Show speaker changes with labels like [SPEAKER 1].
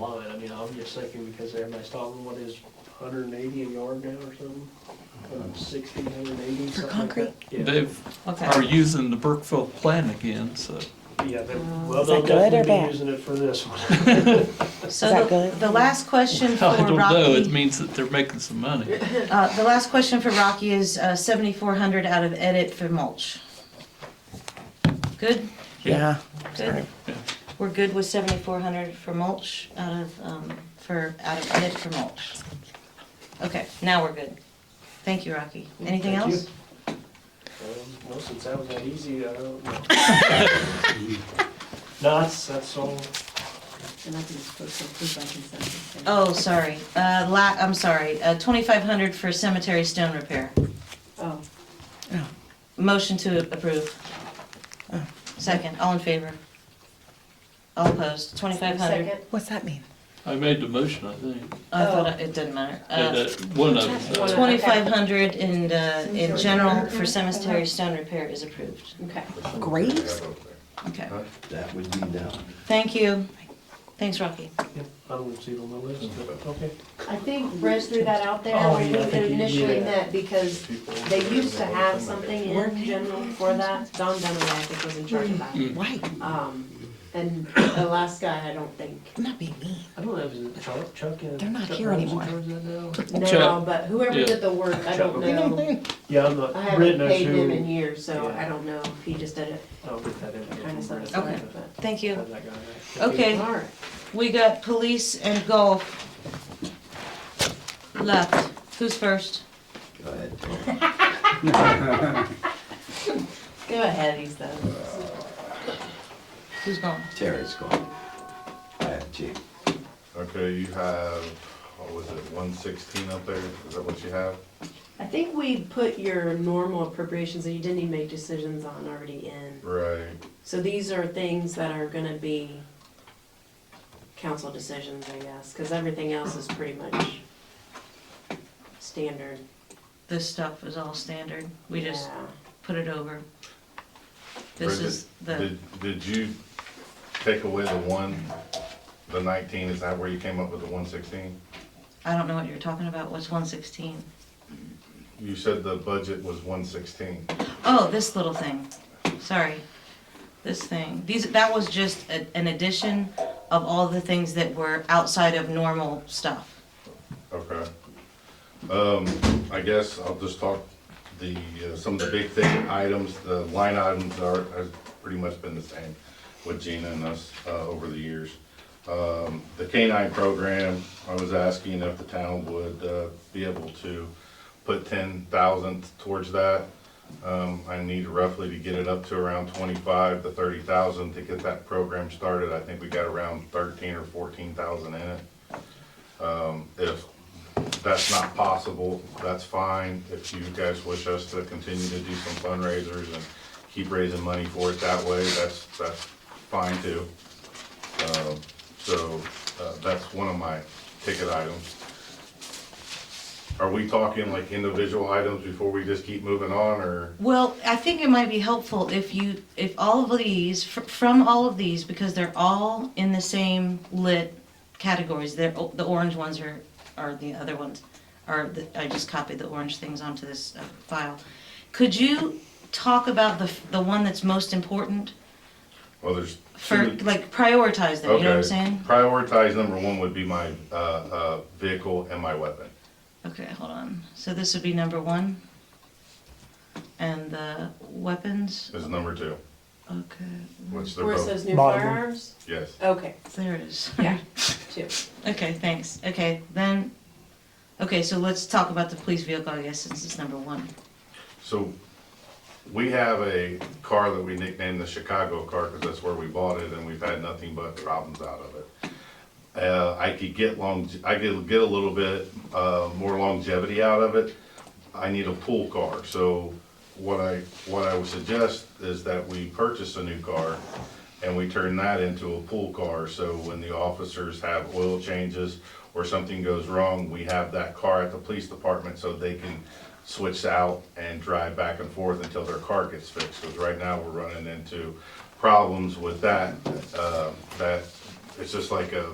[SPEAKER 1] line, I mean, I'm just thinking because everybody's talking, what is hundred and eighty a yard now or something? Um, Sixty, hundred and eighty,
[SPEAKER 2] For
[SPEAKER 1] something like that. Yeah,
[SPEAKER 3] They've,
[SPEAKER 2] Okay.
[SPEAKER 3] are using the Brookfield plan again, so.
[SPEAKER 1] yeah, they,
[SPEAKER 2] Uh,
[SPEAKER 1] well,
[SPEAKER 4] is
[SPEAKER 1] they'll
[SPEAKER 4] that good or
[SPEAKER 1] definitely be
[SPEAKER 4] bad?
[SPEAKER 1] using it for this one.
[SPEAKER 2] So
[SPEAKER 4] Is that
[SPEAKER 2] the-
[SPEAKER 4] good?
[SPEAKER 2] The last question for
[SPEAKER 3] I don't know, it
[SPEAKER 2] Rocky,
[SPEAKER 3] means that they're making some money.
[SPEAKER 2] uh, the last question for Rocky is uh, seventy-four hundred out of edit for mulch. Good,
[SPEAKER 4] Yeah.
[SPEAKER 2] good.
[SPEAKER 3] Yeah.
[SPEAKER 2] We're good with seventy-four hundred for mulch out of, um, for, out of edit for mulch. Okay, now we're good. Thank you, Rocky. Anything
[SPEAKER 1] Thank you.
[SPEAKER 2] else?
[SPEAKER 1] Um, No, since that was that easy, I don't know. No, that's, that's all.
[SPEAKER 5] And I think it's supposed to approve by consensus. then.
[SPEAKER 2] Oh, sorry, uh, la, I'm sorry, uh, twenty-five hundred for cemetery stone repair.
[SPEAKER 5] Oh,
[SPEAKER 2] Motion to approve. Second, all in favor? All opposed, twenty-five hundred.
[SPEAKER 5] second.
[SPEAKER 4] What's that mean?
[SPEAKER 3] I made the motion, I think.
[SPEAKER 2] I thought I- it didn't matter. Uh,
[SPEAKER 3] Yeah, that- One of them.
[SPEAKER 5] Uh, One
[SPEAKER 3] uh,
[SPEAKER 5] of-
[SPEAKER 2] Twenty-five hundred in, uh, in general for cemetery stone repair is approved.
[SPEAKER 5] Okay.
[SPEAKER 4] Graves?
[SPEAKER 2] Okay,
[SPEAKER 6] That would be down.
[SPEAKER 2] thank you. Thanks, Rocky.
[SPEAKER 1] Yep, I don't see it on the list, but, okay.
[SPEAKER 7] I think Brez threw that out there
[SPEAKER 1] Oh,
[SPEAKER 7] when
[SPEAKER 1] yeah, I
[SPEAKER 7] we
[SPEAKER 1] think he-
[SPEAKER 7] initially
[SPEAKER 1] yeah.
[SPEAKER 7] met, because they used to have something in general for that. Don Dunaway, I think, was in charge of that.
[SPEAKER 1] Hmm.
[SPEAKER 3] mm.
[SPEAKER 4] Right.
[SPEAKER 7] Um, and the last guy, I don't think,
[SPEAKER 4] I'm not being mean.
[SPEAKER 1] I don't know, is it Chuck, Chuck? and-
[SPEAKER 4] They're not
[SPEAKER 1] Chuck
[SPEAKER 4] here
[SPEAKER 1] Rhodes in
[SPEAKER 4] anymore.
[SPEAKER 1] charge of that now?
[SPEAKER 7] now,
[SPEAKER 3] Chuck.
[SPEAKER 7] but whoever
[SPEAKER 3] Yeah.
[SPEAKER 7] did the work, I don't know.
[SPEAKER 1] Yeah, I'm
[SPEAKER 7] I
[SPEAKER 1] not, Britt
[SPEAKER 7] haven't
[SPEAKER 1] knows
[SPEAKER 7] paid him in
[SPEAKER 1] who.
[SPEAKER 7] years, so
[SPEAKER 1] Yeah.
[SPEAKER 7] I don't know if he just did it
[SPEAKER 1] I'll get that in.
[SPEAKER 7] kind of stuff.
[SPEAKER 2] Okay. Thank you. Okay.
[SPEAKER 7] All right.
[SPEAKER 2] We got police and golf. Left. Who's first?
[SPEAKER 6] Go ahead.
[SPEAKER 7] Go ahead, he's the.
[SPEAKER 2] Who's going?
[SPEAKER 6] Terry's gone. I have two.
[SPEAKER 8] Okay, you have, what was it, one sixteen up there, is that what you have?
[SPEAKER 7] I think we put your normal appropriations that you didn't even make decisions on already in.
[SPEAKER 8] Right,
[SPEAKER 7] So these are things that are gonna be council decisions, I guess, because everything else is pretty much standard.
[SPEAKER 2] This stuff is all standard. We just
[SPEAKER 7] Yeah.
[SPEAKER 2] put it over. This
[SPEAKER 8] Bridget,
[SPEAKER 2] is the,
[SPEAKER 8] did, did you take away the one, the nineteen, is that where you came up with the one sixteen?
[SPEAKER 2] I don't know what you're talking about. What's one sixteen?
[SPEAKER 8] You said the budget was one sixteen,
[SPEAKER 2] Oh, this little thing. Sorry. This thing. These, that was just a- an addition of all the things that were outside of normal stuff.
[SPEAKER 8] okay. Um, I guess I'll just talk the, uh, some of the big thing items, the line items are, has pretty much been the same with Gina and us, uh, over the years. Um, the canine program, I was asking if the town would, uh, be able to put ten thousand towards that. Um, I need roughly to get it up to around twenty-five to thirty thousand to get that program started. I think we got around thirteen or fourteen thousand in it. Um, if that's not possible, that's fine. If you guys wish us to continue to do some fundraisers and keep raising money for it that way, that's, that's fine too. Um, So, uh, that's one of my ticket items. Are we talking like individual items before we just keep moving on, or?
[SPEAKER 2] Well, I think it might be helpful if you, if all of these, fr- from all of these, because they're all in the same lit categories, they're, o- the orange ones are, are the other ones, are, the- I just copied the orange things onto this uh, file. Could you talk about the, f- the one that's most important
[SPEAKER 8] Well, there's.
[SPEAKER 2] for,
[SPEAKER 8] two-
[SPEAKER 2] like, prioritize them, you know what I'm
[SPEAKER 8] Okay.
[SPEAKER 2] saying?
[SPEAKER 8] Prioritize number one would be my, uh, uh, vehicle and my weapon.
[SPEAKER 2] Okay, hold on. So this would be number one. And the weapons,
[SPEAKER 8] Is number two,
[SPEAKER 2] okay,
[SPEAKER 8] which they're
[SPEAKER 7] Where it
[SPEAKER 8] both,
[SPEAKER 7] says new
[SPEAKER 1] Bottom.
[SPEAKER 7] firearms?
[SPEAKER 8] yes.
[SPEAKER 7] Okay,
[SPEAKER 2] there it is.
[SPEAKER 7] yeah, two.
[SPEAKER 2] Okay, thanks. Okay, then, okay, so let's talk about the police vehicle, I guess, since it's number one.
[SPEAKER 8] So we have a car that we nicknamed the Chicago car because that's where we bought it and we've had nothing but problems out of it. Uh, I could get long, I could get a little bit, uh, more longevity out of it. I need a pool car, so what I, what I would suggest is that we purchase a new car and we turn that into a pool car, so when the officers have oil changes or something goes wrong, we have that car at the police department so they can switch out and drive back and forth until their car gets fixed, because right now we're running into problems with that, uh, that, it's just like a